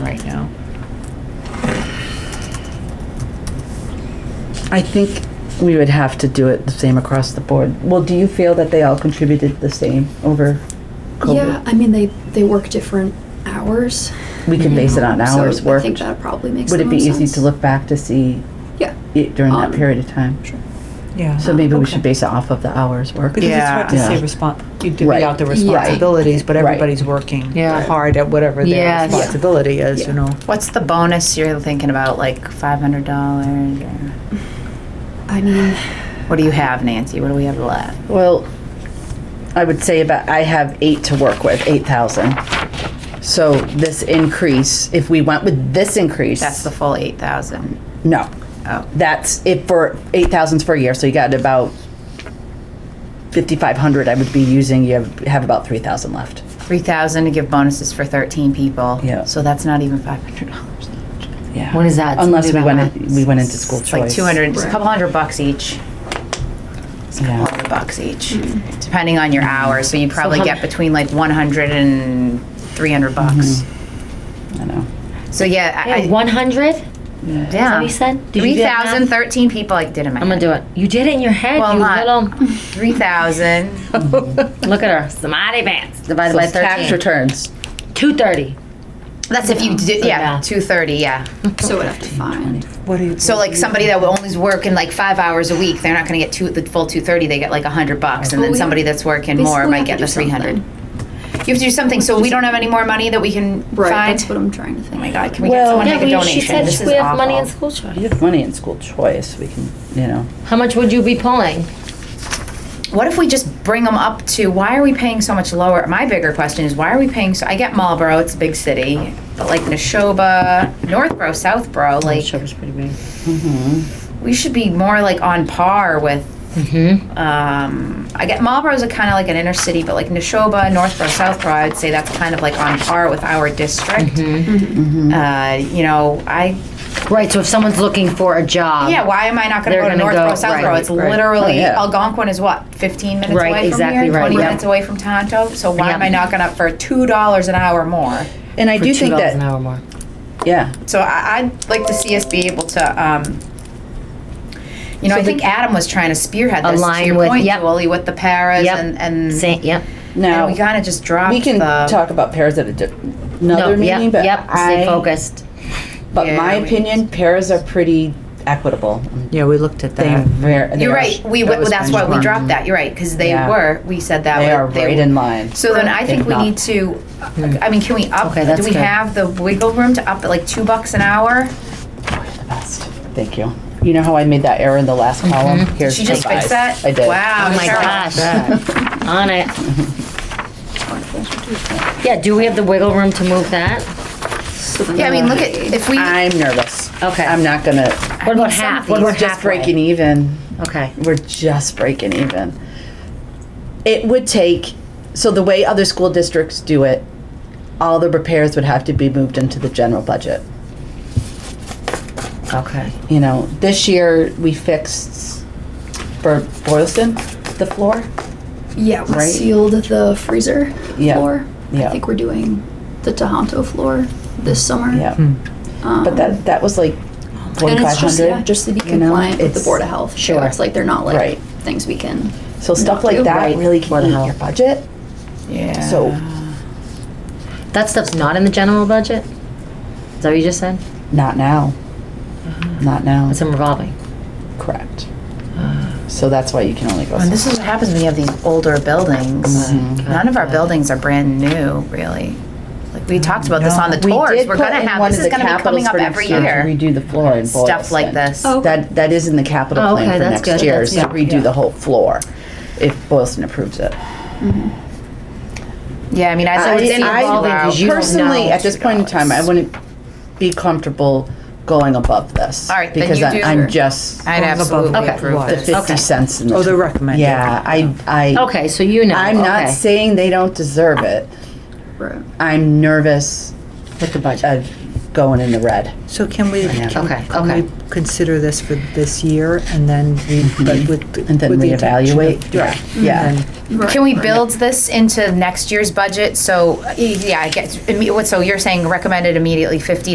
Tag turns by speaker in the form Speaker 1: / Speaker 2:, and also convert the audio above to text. Speaker 1: I think we would have to do it the same across the board. Well, do you feel that they all contributed the same over
Speaker 2: Yeah,
Speaker 1: COVID?
Speaker 2: I mean, they, they work different hours.
Speaker 1: We could base it on hours
Speaker 2: so I
Speaker 1: worked.
Speaker 2: think that probably makes
Speaker 1: Would
Speaker 2: the
Speaker 1: it be
Speaker 2: most
Speaker 1: easy
Speaker 2: sense.
Speaker 1: to look back to see
Speaker 2: Yeah.
Speaker 1: it during that
Speaker 2: Um,
Speaker 1: period of time?
Speaker 2: Sure.
Speaker 3: Yeah.
Speaker 1: So maybe we should
Speaker 3: Okay.
Speaker 1: base it off of the hours worked.
Speaker 3: Because it's
Speaker 4: Yeah.
Speaker 3: hard to say
Speaker 1: Yeah.
Speaker 3: respons, you divvy
Speaker 1: Right.
Speaker 3: out the
Speaker 2: Right.
Speaker 3: responsibilities, but
Speaker 1: Right.
Speaker 3: everybody's working
Speaker 5: Yeah.
Speaker 3: hard at whatever their
Speaker 5: Yes.
Speaker 3: responsibility is, you
Speaker 2: Yeah.
Speaker 3: know?
Speaker 5: What's the bonus you're thinking about, like five hundred dollars? or
Speaker 2: I mean,
Speaker 5: What do you have, Nancy? What do we have left?
Speaker 1: Well, I would say about, I have eight to work with, eight thousand. So this increase, if we went with this increase.
Speaker 5: That's the full eight thousand.
Speaker 1: No,
Speaker 5: Oh,
Speaker 1: that's it for, eight thousands for a year, so you got about fifty-five hundred I would be using, you have, have about three thousand left.
Speaker 5: three thousand to give bonuses for thirteen people.
Speaker 1: Yeah.
Speaker 5: So that's not even five hundred dollars.
Speaker 1: Yeah.
Speaker 6: What is that?
Speaker 1: Unless
Speaker 6: Do
Speaker 1: we
Speaker 6: the
Speaker 1: went, in-
Speaker 6: math.
Speaker 1: we went into school
Speaker 5: It's like
Speaker 1: choice.
Speaker 5: two hundred, it's a couple hundred bucks each. It's a
Speaker 1: Yeah.
Speaker 5: couple hundred bucks each,
Speaker 6: Mm-hmm.
Speaker 5: depending on your hours. So you probably
Speaker 6: how-
Speaker 5: get between like one hundred and three hundred bucks.
Speaker 1: Mm-hmm. I know.
Speaker 5: So yeah, I, I-
Speaker 6: One hundred?
Speaker 5: yeah.
Speaker 6: what you said? Did you do
Speaker 5: Three
Speaker 6: that math?
Speaker 5: thousand, thirteen people, I did a math.
Speaker 6: I'm gonna do it. You did it in your head.
Speaker 5: Well,
Speaker 6: you
Speaker 5: not-
Speaker 6: little.
Speaker 5: Three thousand.
Speaker 6: Look at her. Samadhi pants divided
Speaker 1: So
Speaker 6: by
Speaker 1: it's tax
Speaker 6: thirteen.
Speaker 1: returns,
Speaker 6: Two thirty.
Speaker 5: That's if you did, yeah,
Speaker 6: Yeah.
Speaker 5: two thirty, yeah.
Speaker 2: so I'd have to find.
Speaker 3: What do you?
Speaker 5: So like somebody that will only working like five hours a week, they're not going to get two the full two thirty. They get like a hundred bucks, and
Speaker 2: But
Speaker 5: then
Speaker 2: we
Speaker 5: somebody that's working
Speaker 2: we
Speaker 5: more
Speaker 2: still
Speaker 5: might
Speaker 2: have to
Speaker 5: get the
Speaker 2: do
Speaker 5: three hundred. You
Speaker 2: something.
Speaker 5: have to do something. So we don't have any more money that we can
Speaker 2: Right,
Speaker 5: find.
Speaker 2: that's what I'm trying to think.
Speaker 5: oh my god, can we
Speaker 1: Well-
Speaker 5: get someone to
Speaker 6: Yeah,
Speaker 5: make a
Speaker 6: we,
Speaker 5: donation?
Speaker 6: she said
Speaker 5: this is
Speaker 6: we have
Speaker 5: awful.
Speaker 6: money in school
Speaker 1: you
Speaker 6: choice.
Speaker 1: have money in school choice, we can, you know.
Speaker 6: How much would you be pulling?
Speaker 5: What if we just bring them up to? Why are we paying so much lower? My bigger question is why are we paying? So I get Marlboro, it's a big city, but like Neshoba, Northborough, Southborough, like
Speaker 6: was pretty big.
Speaker 5: we should be more like on par with.
Speaker 6: Mm-hmm.
Speaker 5: Um, I get Marlboro's a kind of like an inner city, but like Neshoba, Northborough, Southborough, I'd say that's kind of like on par with our district.
Speaker 6: Mm-hmm.
Speaker 5: Uh, you know, I
Speaker 6: Right. So if someone's looking for a job.
Speaker 5: yeah. Why am I not going to
Speaker 6: Um, They're
Speaker 5: go to
Speaker 6: gonna
Speaker 5: Northborough,
Speaker 6: go-
Speaker 5: Southborough?
Speaker 6: right,
Speaker 5: it's
Speaker 6: right.
Speaker 5: literally
Speaker 1: Oh, yeah.
Speaker 5: Algonquin is what fifteen minutes
Speaker 6: Right,
Speaker 5: away
Speaker 6: exactly
Speaker 5: from here,
Speaker 6: right,
Speaker 5: twenty
Speaker 6: yeah.
Speaker 5: minutes away from Tonto. So why am
Speaker 6: Yeah.
Speaker 5: I not going to for two dollars an hour more?
Speaker 1: And I
Speaker 6: For
Speaker 1: do think
Speaker 6: $2 an
Speaker 1: that,
Speaker 6: hour more.
Speaker 1: yeah,
Speaker 5: So I, I'd like to see us be able to, um, you know, I think Adam was trying to spearhead this to
Speaker 6: Align
Speaker 5: your
Speaker 6: with-
Speaker 5: point,
Speaker 6: yep.
Speaker 5: Julie, with the paras
Speaker 6: Yep.
Speaker 5: and, and,
Speaker 6: Same. Yep.
Speaker 1: now,
Speaker 5: and we kind of just dropped
Speaker 1: we can
Speaker 5: the,
Speaker 1: talk about pairs at a di- another
Speaker 6: no.
Speaker 1: meeting,
Speaker 6: Yep.
Speaker 1: but
Speaker 6: Yep. Stay
Speaker 1: I,
Speaker 6: focused.
Speaker 1: but my
Speaker 5: Yeah, we-
Speaker 1: opinion, pairs are pretty equitable.
Speaker 3: Yeah, we looked at
Speaker 1: They
Speaker 3: that.
Speaker 1: ver- they
Speaker 5: you're
Speaker 1: are-
Speaker 5: right. We,
Speaker 1: that
Speaker 5: w-
Speaker 1: was
Speaker 5: that's why we
Speaker 1: benchmark.
Speaker 5: dropped that. You're right. Cause they
Speaker 1: Yeah.
Speaker 5: were, we said that.
Speaker 1: They
Speaker 5: but
Speaker 1: are right
Speaker 5: were-
Speaker 1: in line.
Speaker 5: So then I think
Speaker 1: If
Speaker 5: we
Speaker 1: not.
Speaker 5: need to, I mean, can we up,
Speaker 6: Hmm. Okay, that's
Speaker 5: do we
Speaker 6: good.
Speaker 5: have the wiggle room to up at like two bucks an hour?
Speaker 1: The best. Thank you. You know how I made that error in the last column? Here's
Speaker 5: She just
Speaker 1: the
Speaker 5: fixed
Speaker 1: five.
Speaker 5: that?
Speaker 1: I did.
Speaker 5: Wow.
Speaker 6: Oh my
Speaker 5: Cheryl.
Speaker 6: gosh. On it. Yeah. Do we have the wiggle room to move that?
Speaker 2: So then
Speaker 5: Yeah, I mean, look
Speaker 2: that-
Speaker 5: at, if we,
Speaker 1: I'm nervous.
Speaker 6: Okay.
Speaker 1: I'm not gonna,
Speaker 6: What about
Speaker 5: need some of
Speaker 6: half?
Speaker 5: these.
Speaker 6: What
Speaker 1: we're
Speaker 6: about
Speaker 1: just
Speaker 6: halfway?
Speaker 1: breaking even.
Speaker 6: Okay.
Speaker 1: We're just breaking even. It would take, so the way other school districts do it, all the repairs would have to be moved into the general budget.
Speaker 6: Okay.
Speaker 1: You know, this year, we fixed for Boylston, the floor.
Speaker 2: Yeah, we
Speaker 1: Right.
Speaker 2: sealed the freezer
Speaker 1: Yeah,
Speaker 2: floor.
Speaker 1: yeah.
Speaker 2: I think we're doing the Tahanto floor this summer.
Speaker 1: Yeah.
Speaker 3: Hmm.
Speaker 1: But that, that was like
Speaker 2: And it's just, yeah,
Speaker 1: 4,500.
Speaker 2: just to be
Speaker 1: you know,
Speaker 2: compliant with the
Speaker 1: it's-
Speaker 2: Board of Health. So
Speaker 6: Sure.
Speaker 2: It's like they're not like
Speaker 1: Right.
Speaker 2: things we can.
Speaker 1: So stuff
Speaker 2: not
Speaker 1: like
Speaker 2: do.
Speaker 1: that
Speaker 6: Right.
Speaker 1: really can
Speaker 6: What the
Speaker 1: eat
Speaker 6: hell?
Speaker 1: your budget.
Speaker 5: yeah.
Speaker 1: So
Speaker 6: That stuff's not in the general budget. Is that what you just said?
Speaker 1: not now.
Speaker 5: Uh-huh.
Speaker 1: Not now.
Speaker 6: It's in revolving.
Speaker 1: Correct. So that's why you can only go.
Speaker 5: And
Speaker 1: so-
Speaker 5: Uh. this is what happens when you have these older buildings.
Speaker 1: Mm-hmm.
Speaker 5: None of our buildings are brand new, really. Like we talked about this on the
Speaker 1: We
Speaker 5: tours.
Speaker 1: did
Speaker 5: We're
Speaker 1: put
Speaker 5: gonna
Speaker 1: in
Speaker 5: have
Speaker 1: one
Speaker 5: this
Speaker 1: of
Speaker 5: is
Speaker 1: the
Speaker 5: gonna be
Speaker 1: capitals
Speaker 5: coming up
Speaker 1: for
Speaker 5: every
Speaker 1: next year
Speaker 5: year.
Speaker 1: to Redo the floor in Boylston.
Speaker 5: Stuff like this.
Speaker 2: Oh.
Speaker 1: That, that is in the capital
Speaker 6: Oh,
Speaker 1: plan
Speaker 6: okay,
Speaker 1: for
Speaker 6: that's
Speaker 1: next
Speaker 6: good.
Speaker 1: year, is
Speaker 6: That's
Speaker 1: to
Speaker 6: good.
Speaker 1: redo the whole floor, if Boylston approves it.
Speaker 5: Yeah, I mean, I
Speaker 1: I-
Speaker 5: thought it's in
Speaker 1: I-
Speaker 5: evolving
Speaker 6: I-
Speaker 5: because you don't know.
Speaker 1: Personally, at this point in time, I wouldn't be comfortable going above this.
Speaker 5: All right, then
Speaker 1: Because
Speaker 5: you
Speaker 1: I-
Speaker 5: do-
Speaker 1: I'm just,
Speaker 5: I'd absolutely
Speaker 6: Okay.
Speaker 5: approve
Speaker 1: the
Speaker 5: this.
Speaker 1: fifty cents in the.
Speaker 3: Oh, the recommended.
Speaker 1: Yeah, I, I.
Speaker 6: Okay, so you know.
Speaker 1: I'm not
Speaker 6: okay.
Speaker 1: saying they don't deserve it.
Speaker 2: Right.
Speaker 1: I'm nervous
Speaker 6: with the budget.
Speaker 1: of going in the red.
Speaker 3: So can we, can
Speaker 6: Okay,
Speaker 3: can
Speaker 6: okay.
Speaker 3: we consider this for this year and then we, but with.
Speaker 1: And then
Speaker 3: with the
Speaker 1: reevaluate?
Speaker 3: intention of- Right.
Speaker 1: Yeah.
Speaker 3: And then-
Speaker 5: Can we build this into next year's budget? So, yeah, I guess, imme- what- so you're saying recommended immediately fifty